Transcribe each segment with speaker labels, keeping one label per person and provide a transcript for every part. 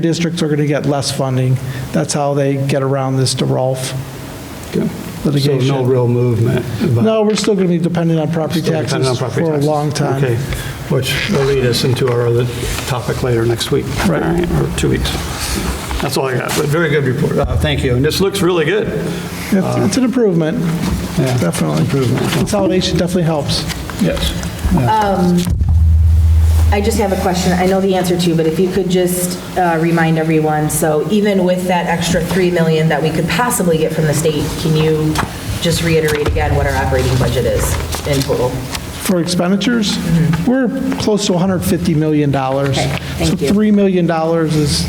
Speaker 1: districts are going to get less funding. That's how they get around this DeRolf
Speaker 2: Okay. So no
Speaker 1: litigation.
Speaker 2: real movement? about-
Speaker 1: No, we're still going to be dependent on property
Speaker 2: Still dependent on
Speaker 1: taxes
Speaker 2: property
Speaker 1: for a
Speaker 2: taxes.
Speaker 1: long
Speaker 2: Okay,
Speaker 1: time.
Speaker 2: which will lead us into our other topic later next week.
Speaker 1: Right.
Speaker 2: All Or two weeks. That's all I got, but very good report. Uh, Thank you. And this looks really good.
Speaker 1: It's it's an improvement,
Speaker 2: Yeah.
Speaker 1: definitely.
Speaker 2: Uh, Improvement.
Speaker 1: Consolidation definitely helps.
Speaker 2: Yes.
Speaker 3: I just have a question, I know the answer to, but if you could just uh, remind everyone, so even with that extra 3 million that we could possibly get from the state, can you just reiterate again what our operating budget is in total?
Speaker 1: For expenditures, we're close to $150 million. So
Speaker 3: thank you.
Speaker 1: $3 million is,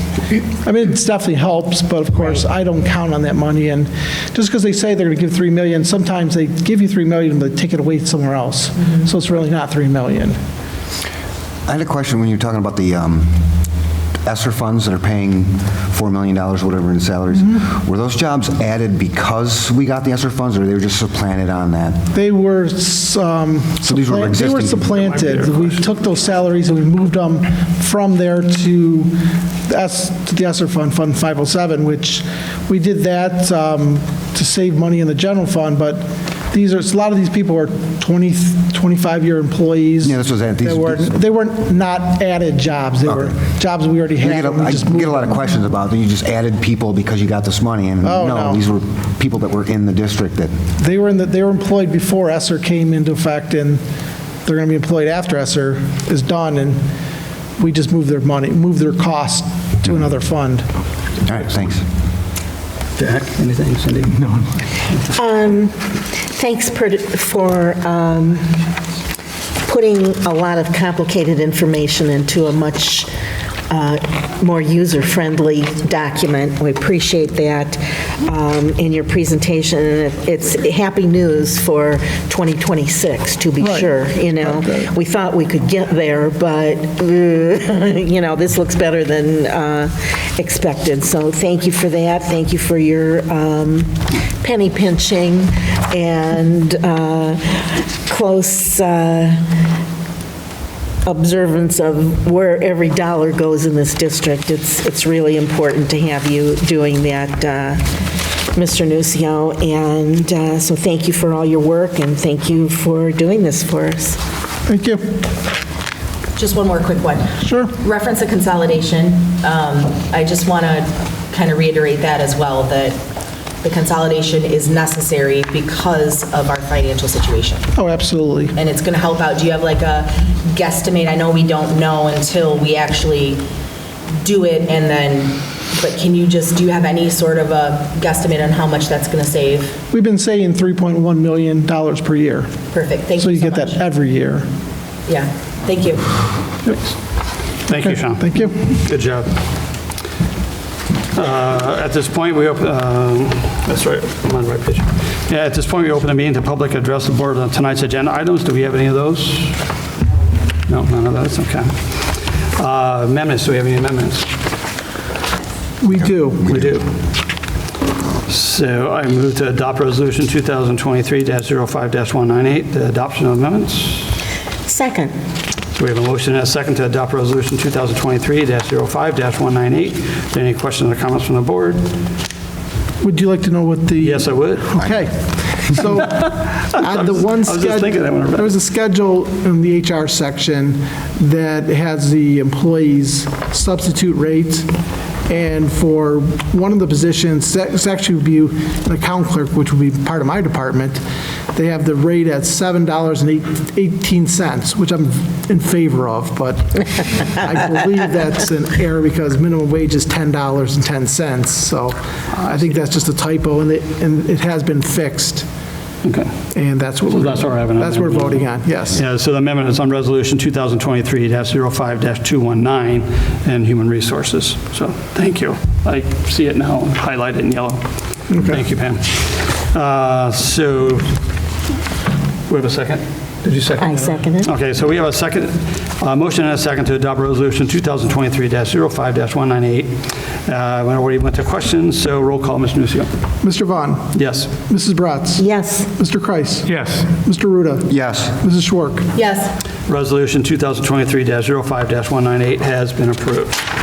Speaker 1: I mean, it's definitely helps, but of course, I don't count on that money. And just because they say they're going to give 3 million, sometimes they give you 3 million, but they take it away somewhere else.
Speaker 3: Mm-hmm.
Speaker 1: So it's really not 3 million.
Speaker 4: I had a question when you were talking about the um, ESSER funds that are paying $4 million, whatever, in salaries.
Speaker 1: Mm-hmm.
Speaker 4: Were those jobs added because we got the ESSER funds, or they were just supplanted on that?
Speaker 1: They were, s- um,
Speaker 4: these were
Speaker 1: supplant- they were
Speaker 4: existing-
Speaker 1: supplanted. We took those salaries and we moved them from there to the S- to the ESER fund, Fund 507, which we did that um, to save money in the general fund, but these are, a lot of these people are 20, 25-year employees.
Speaker 4: Yeah, this was at these-
Speaker 1: They weren't, they weren't not added jobs. They were jobs we already
Speaker 4: I
Speaker 1: had.
Speaker 4: get a-
Speaker 1: and we
Speaker 4: I
Speaker 1: just moved
Speaker 4: get a lot of
Speaker 1: them.
Speaker 4: questions about that you just added people because you got this money, and
Speaker 1: Oh, no.
Speaker 4: no, these were people that were in the district that,
Speaker 1: They were in, the- they were employed before Esser came into effect, and they're going to be employed after Esser is done, and we just move their money, move their cost to another fund.
Speaker 4: all right, thanks.
Speaker 2: Jack, anything, Cindy? No.
Speaker 5: Um, Thanks per- for um, putting a lot of complicated information into a much uh, more user-friendly document. We appreciate that um, in your presentation. and it- It's happy news for 2026, to be
Speaker 1: Right.
Speaker 5: sure, you know. We thought we could get there, but, uh, you know, this looks better than uh, expected. So thank you for that. Thank you for your um, penny pinching and uh, close uh, observance of where every dollar goes in this district. It's, it's really important to have you doing that, uh, Mr. Nucio. And uh, so thank you for all your work, and thank you for doing this for us.
Speaker 1: Thank you.
Speaker 3: Just one more quick one.
Speaker 1: Sure.
Speaker 3: Reference to consolidation, um, I just want to kind of reiterate that as well, that the consolidation is necessary because of our financial situation.
Speaker 1: Oh, absolutely.
Speaker 3: and it's going to help out. Do you have like a guesstimate? I know we don't know until we actually do it and then, but can you just, do you have any sort of a guesstimate on how much that's going to save?
Speaker 1: We've been saying $3.1 million per year,
Speaker 3: Perfect, thank
Speaker 1: so
Speaker 3: you
Speaker 1: you
Speaker 3: so
Speaker 1: get that
Speaker 3: much.
Speaker 1: every year.
Speaker 3: Yeah, thank you.
Speaker 2: Thank you, Sean.
Speaker 1: Thank you.
Speaker 2: Good job. Uh, At this point, we open, um, that's right, I'm on the right page. Yeah, at this point, we open the meeting to public address the board on tonight's agenda items. Do we have any of those? No, none of those, okay. Uh, Amendments, do we have any amendments?
Speaker 1: We do.
Speaker 2: We do. So I move to adopt Resolution 2023-05-198, the adoption of amendments.
Speaker 5: Second.
Speaker 2: So we have a motion and a second to adopt Resolution 2023-05-198. Any questions or comments from the board?
Speaker 1: Would you like to know what the?
Speaker 2: Yes, I would.
Speaker 1: Okay, so on the one
Speaker 2: I was just thinking that when
Speaker 1: schedule,
Speaker 2: I read it.
Speaker 1: there was a schedule in the HR section that has the employees' substitute rates, and for one of the positions, that- it's actually would be an account clerk, which would be part of my department, they have the rate at $7.18, which I'm in favor of, but I believe that's an error because minimum wage is $10.10, so I think that's just a typo, and it, and it has been fixed.
Speaker 2: Okay.
Speaker 1: And that's what,
Speaker 2: So
Speaker 1: we're-
Speaker 2: that's what we're having on
Speaker 1: that's what we're
Speaker 2: there.
Speaker 1: voting on, yes.
Speaker 2: Yeah, so the amendment is on Resolution 2023-05-219 and Human Resources. So, thank you. I see it now, highlighted in yellow. Thank you, Pam. Uh, So, we have a second? Did you second?
Speaker 5: I second it.
Speaker 2: Okay, so we have a second, uh motion and a second to adopt Resolution 2023-05-198. Uh, When already went to questions, so roll call, Mr. Nucio.
Speaker 1: Mr. Vaughn,
Speaker 2: Yes.
Speaker 1: Mrs. Bratz.
Speaker 5: Yes.
Speaker 1: Mr. Kreis.
Speaker 6: Yes.
Speaker 1: Mr. Ruda.
Speaker 4: Yes.
Speaker 1: Mrs. Schwark.
Speaker 3: Yes,
Speaker 2: oh Resolution 2023-05-198 has been approved.